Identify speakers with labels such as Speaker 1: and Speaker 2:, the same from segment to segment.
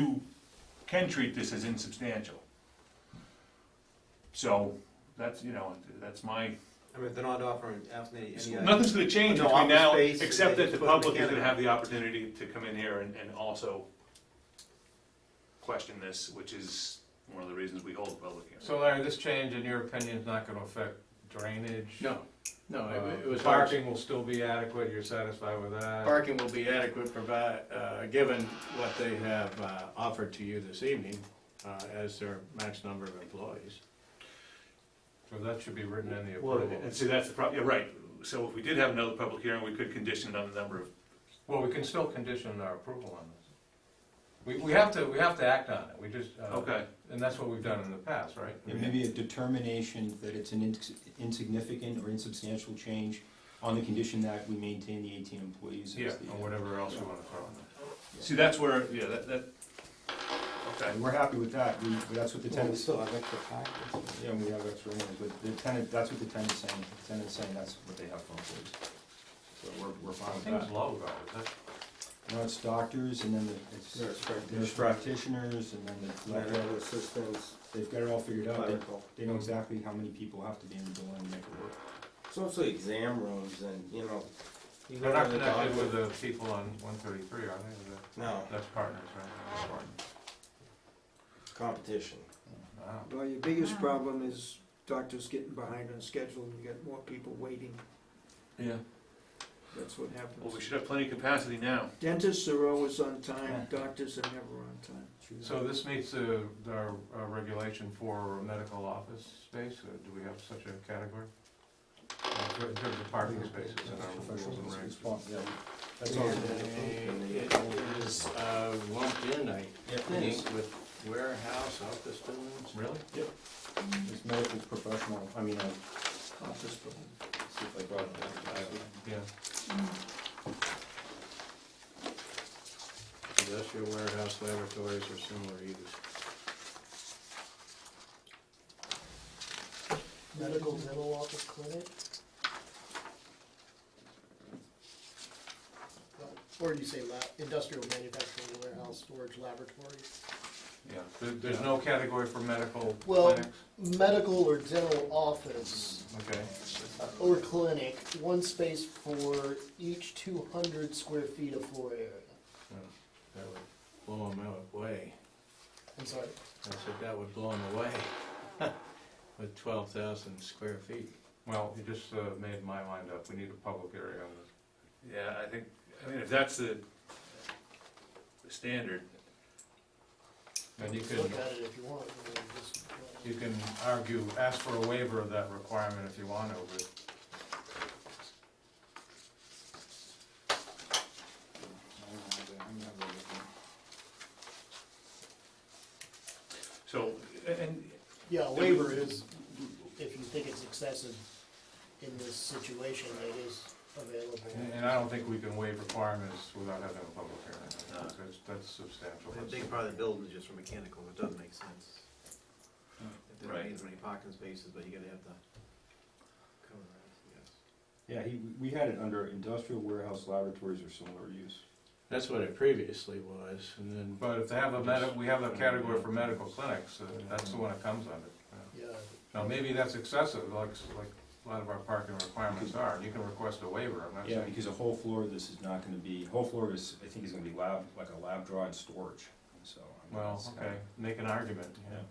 Speaker 1: you can treat this as insubstantial. So, that's, you know, that's my,
Speaker 2: I mean, if they're not offering absolutely any. idea.
Speaker 1: nothing's gonna change
Speaker 2: No,
Speaker 1: between
Speaker 2: office
Speaker 1: now,
Speaker 2: space,
Speaker 1: except
Speaker 2: they
Speaker 1: that the
Speaker 2: just put a
Speaker 1: public is gonna
Speaker 2: mechanic-
Speaker 1: have the opportunity to come in here and, and also question this, which is one of the reasons we hold public hearings.
Speaker 3: So Larry, this change, in your opinion, is not gonna affect drainage?
Speaker 4: No, no, it- it
Speaker 3: Uh,
Speaker 4: was.
Speaker 3: Parking will still be adequate, you're satisfied with that?
Speaker 4: Parking will be adequate provide, uh, given what they have, uh, offered to you this evening, uh, as their max number of employees.
Speaker 3: So that should be written in the
Speaker 1: Well,
Speaker 3: approval.
Speaker 1: and see, that's the problem, yeah, right, so if we did have another public hearing, we could condition it on the number of,
Speaker 3: Well, we can still condition our approval on this. We, we have to, we have to act on it, we just, uh,
Speaker 1: okay,
Speaker 3: and that's what we've done in the past, right?
Speaker 5: There may be a determination that it's an ins- insignificant or insubstantial change on the condition that we maintain the eighteen employees. as
Speaker 3: Yeah,
Speaker 5: the,
Speaker 3: or
Speaker 5: uh,
Speaker 3: whatever else you wanna throw in there.
Speaker 1: see, that's where, yeah, that, that, okay.
Speaker 5: And we're happy with that, we, that's what
Speaker 6: Well, we
Speaker 5: the tenant,
Speaker 6: still have extra packets.
Speaker 5: yeah, we have extra hands, but the tenant, that's what the tenant's saying, the tenant's saying that's what they have for employees. So we're, we're fine with
Speaker 3: Seems
Speaker 5: that.
Speaker 3: low though, is
Speaker 5: Now it's doctors and then the, it's,
Speaker 6: Nurse
Speaker 5: there's
Speaker 6: practitioner,
Speaker 5: practitioners and then the
Speaker 6: medical assistants,
Speaker 5: They've got it all figured out, They-
Speaker 6: clerical.
Speaker 5: they know exactly how many people have to be in the building to make it work.
Speaker 6: It's also exam rooms and, you know. you
Speaker 3: They're
Speaker 6: go
Speaker 3: not
Speaker 6: to the
Speaker 3: connected with
Speaker 6: doctor-
Speaker 3: the people on one thirty-three, are they? Is that-
Speaker 6: No,
Speaker 3: That's partners, right?
Speaker 6: competition.
Speaker 3: Wow.
Speaker 7: Well, your biggest problem is doctors getting behind on schedule, and you got more people waiting,
Speaker 1: Yeah.
Speaker 7: that's what
Speaker 1: Well, we
Speaker 7: happens.
Speaker 1: should have plenty of capacity now.
Speaker 7: Dentists are always on time, doctors are never on time.
Speaker 3: So this meets the, our, our regulation for medical office space, Uh, do we have such a category? Uh, In terms of parking spaces and our rules and regs.
Speaker 5: Yeah,
Speaker 6: That's
Speaker 4: That's
Speaker 6: all.
Speaker 4: all. It is, uh, lumped in, I think, with warehouse, office buildings.
Speaker 3: Really?
Speaker 5: It's medical professional, I mean, uh,
Speaker 7: Office building.
Speaker 5: see if I brought it up.
Speaker 3: Yeah.
Speaker 4: Industrial warehouse laboratories or similar uses.
Speaker 8: medical dental office clinic. Or you say lab, industrial manufacturing warehouse storage laboratory.
Speaker 3: Yeah, there, there's no category for medical
Speaker 8: Well-
Speaker 3: clinics?
Speaker 8: Medical or dental office
Speaker 3: Okay,
Speaker 8: uh, or clinic, one space for each two hundred square feet of floor area.
Speaker 4: That would blow them out away.
Speaker 8: I'm sorry,
Speaker 4: I said that would blow them away with twelve thousand square feet.
Speaker 3: well, you just uh, made my mind up, we need a public area on this.
Speaker 1: Yeah, I think, I mean, if that's the, the standard,
Speaker 3: And you
Speaker 8: look
Speaker 3: can,
Speaker 8: at it if you want. I mean, just, uh,
Speaker 3: you can argue, ask for a waiver of that requirement if you want to, but
Speaker 1: so, and,
Speaker 8: Yeah, a waiver is, if you think it's excessive in this situation, it is
Speaker 3: And-
Speaker 8: available.
Speaker 3: And I don't think we can waive requirements without having a public hearing, that's, that's substantial.
Speaker 2: I think part of the building is just for mechanical, it doesn't make sense. If there
Speaker 1: Right.
Speaker 2: ain't as many parking spaces, but you gotta have the. cover I guess.
Speaker 5: yeah, he, we had it under industrial warehouse laboratories or similar use.
Speaker 4: That's what it previously was, and then
Speaker 3: But if they have a medi, we have a category for medical clinics, uh, that's the one it comes under.
Speaker 8: Yeah.
Speaker 3: Now, maybe that's excessive, like, like a lot of our parking requirements are, and you can request a waiver, I'm not
Speaker 5: Yeah,
Speaker 3: saying.
Speaker 5: because a whole floor, of this is not gonna be, whole floor is, I think is gonna be lab, like a lab draw and storage, so. I mean,
Speaker 3: Well,
Speaker 5: it's kinda-
Speaker 3: okay, make an argument, yeah.
Speaker 5: Yeah.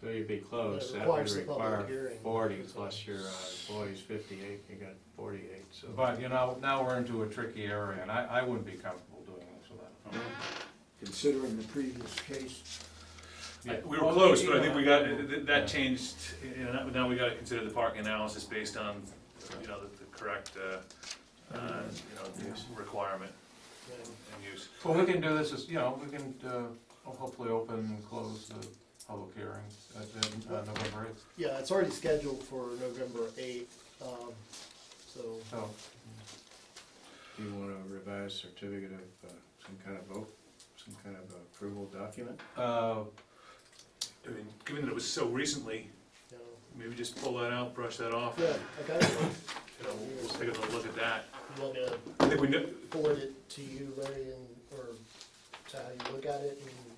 Speaker 4: So you'd be close,
Speaker 8: It
Speaker 4: that would
Speaker 8: requires the public
Speaker 4: require
Speaker 8: hearing.
Speaker 4: forty plus your uh, employees fifty-eight, you got forty-eight, so.
Speaker 3: But, you know, now we're into a tricky area, and I, I wouldn't be comfortable doing this without.
Speaker 7: Considering the previous case,
Speaker 1: I-
Speaker 3: Yeah.
Speaker 1: we were close, but I think we got, that, that changed, you know, now we gotta consider the parking analysis based on, you know, the, the correct, uh, uh, you know, requirement
Speaker 8: Yeah.
Speaker 1: and use.
Speaker 3: Well, we can do this, as you know, we can, uh, hopefully open and close the public hearing at, at uh, November eighth,
Speaker 8: Yeah, it's already scheduled for November eighth, um, so,
Speaker 3: so.
Speaker 4: Do you want a revised certificate of, uh, some kind of vote, some kind of approval document?
Speaker 3: Uh,
Speaker 1: I mean, given that it was so recently,
Speaker 8: you know,
Speaker 1: maybe just pull that out, brush that off, you
Speaker 8: yeah, I got it.
Speaker 1: know, we'll take another look at that.
Speaker 8: You want me to
Speaker 1: I think we know,
Speaker 8: forward it to you, Larry, and, or how you look at it and